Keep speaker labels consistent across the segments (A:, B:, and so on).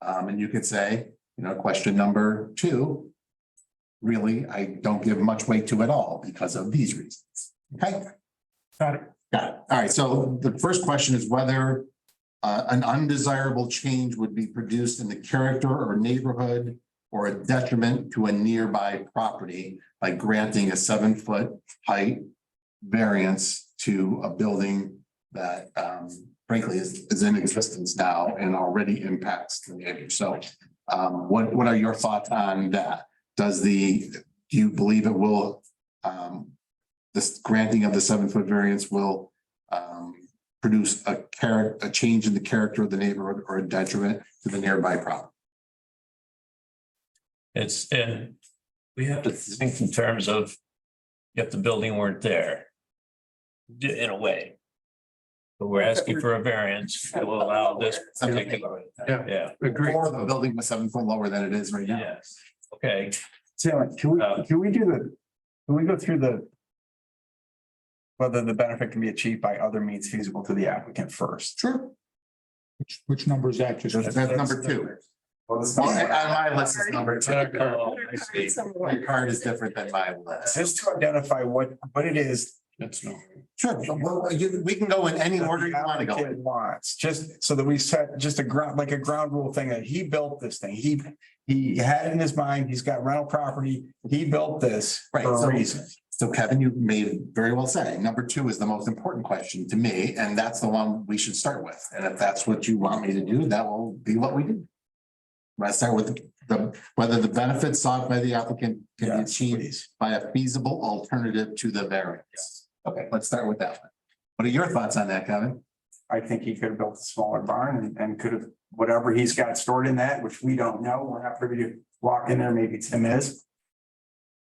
A: Um, and you could say, you know, question number two. Really, I don't give much weight to at all because of these reasons. Okay?
B: Got it.
A: Got it. All right. So the first question is whether uh, an undesirable change would be produced in the character or neighborhood or a detriment to a nearby property by granting a seven-foot height variance to a building that um, frankly is, is in existence now and already impacts the neighborhood. So um, what, what are your thoughts on that? Does the, do you believe it will um, this granting of the seven-foot variance will um, produce a character, a change in the character of the neighborhood or a detriment to the nearby property?
C: It's, and we have to think in terms of if the building weren't there. d- In a way. But we're asking for a variance to allow this particular,
B: Yeah.
C: yeah,
B: Agree.
A: Or the building was seven foot lower than it is right now.
C: yes. Okay,
B: Sarah, can we,
C: Uh,
B: can we do the, can we go through the whether the benefit can be achieved by other means feasible to the applicant first?
A: Sure.
D: Which, which number is that? Just
A: That's number two.
B: Well, this uh,
A: Well, On my list is number two.
C: Oh, I see.
A: Your card is different than my
B: is
A: list.
B: just to identify what, what it is. That's no.
A: Sure, well, you- we can go in any order you want to go. in.
B: Wants, just so that we set just a ground, like a ground rule thing that he built this thing. He, he had it in his mind. He's got rental property. He built this
A: Right,
B: for
A: so-
B: a reason.
A: So Kevin, you may very well say, number two is the most important question to me, and that's the one we should start with. And if that's what you want me to do, that will be what we do. Let's start with the, whether the benefits sought by the applicant can be
B: Yes,
A: achieved
B: please.
A: by a feasible alternative to the variance. Okay, let's start with that one. What are your thoughts on that, Kevin?
B: I think he could have built a smaller barn and, and could have, whatever he's got stored in that, which we don't know, we're not privy to walk in there, maybe Tim is.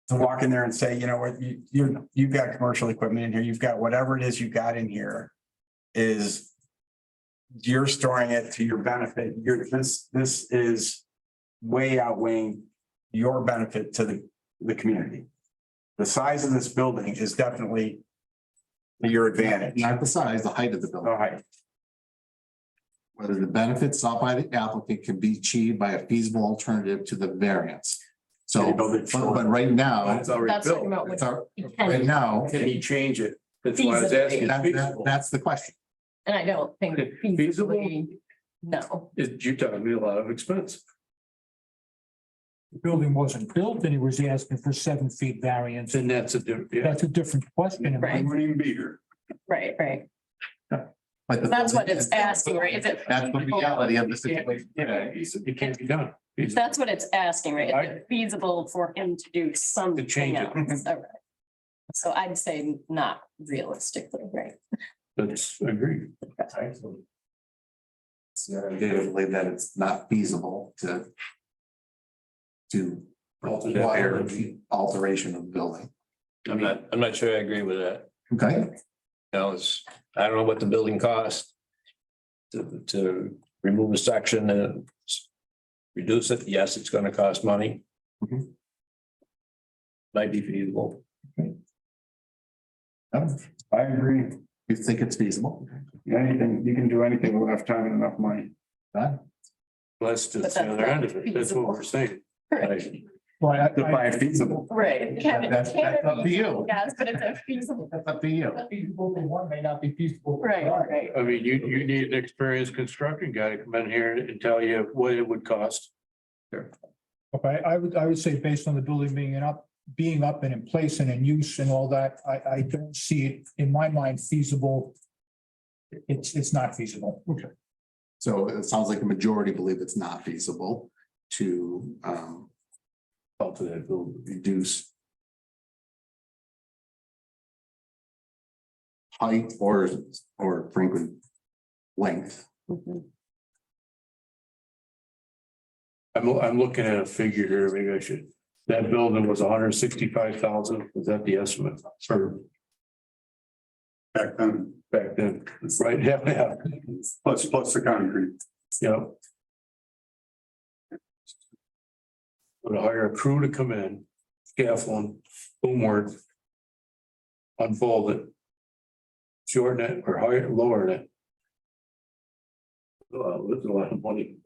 B: To walk in there and say, you know what, you, you, you've got commercial equipment in here, you've got whatever it is you've got in here is you're storing it to your benefit, you're, this, this is way outweighing your benefit to the, the community. The size of this building is definitely your advantage.
A: Not the size, the height of the building.
B: All right.
A: whether the benefits sought by the applicant can be achieved by a feasible alternative to the variance.
B: Can
A: So,
B: you build
A: but,
B: it short?
A: but right now,
E: That's already
F: That's talking
E: built.
F: about
A: it's
F: what
A: our,
F: you
A: right
F: can,
A: now,
E: Can he change it? That's why I was
F: Feasible.
E: asking.
A: that, that,
E: Feasible.
A: that's the question.
F: and I don't think
E: Feasible?
F: feasibly, no.
E: It- You're talking me a lot of expense.
D: The building wasn't built and he was asking for seven feet variance.
E: Then that's a different, yeah.
D: That's a different question.
F: Right.
E: It wouldn't even be here.
F: Right, right.
A: But the-
F: That's what it's asking, right? Is it?
A: That's the reality of the situation.
E: Yeah, it's- it can't be done. It's-
F: That's what it's asking, right? Is
E: Right.
F: it feasible for him to do something
E: change it.
F: else? All right. So I'd say not realistically, right?
E: That's, I agree.
A: So I do believe that it's not feasible to to require the alteration of the building.
G: I'm not, I'm not sure I agree with that.
A: Okay,
G: You know, it's, I don't know what the building cost. To, to remove a section and s- reduce it, yes, it's gonna cost money.
C: Mm-hmm.
A: Mhm.
G: Might be feasible.
B: I agree.
A: you think it's feasible?
B: Anything, you can do anything with enough time and enough money.
A: Done?
E: That's
F: But
E: just
F: that's
E: the other end of it. That's what
F: feasible.
E: we're saying. Right.
D: Well, I- I-
B: Define feasible.
F: Right. Can it-
A: That's,
F: can
A: that's up
F: it
A: to
F: be-
A: you.
F: Yes, but it's a feasible,
A: That's up to you.
D: Feasible in one may not be feasible. in
F: right,
D: another.
F: right.
E: I mean, you, you need an experienced construction guy to come in here and tell you what it would cost.
D: Okay, I would, I would say based on the building being in up, being up and in place and in use and all that, I, I don't see it in my mind feasible. It's, it's not feasible.
A: So it sounds like the majority believe it's not feasible to um
E: Alter that building.
A: reduce height or or frankly length.
F: Mhm.
E: I'm, I'm looking at a figure here, maybe I should, that building was hundred and sixty-five thousand, was that the estimate for? Back then. Back then, right, yeah, yeah. Plus, plus the concrete. Yep. Would hire a crew to come in, scaffold, boom work. Unfold it. Shorten it or hire, lower it. Wow, that's a lot of money.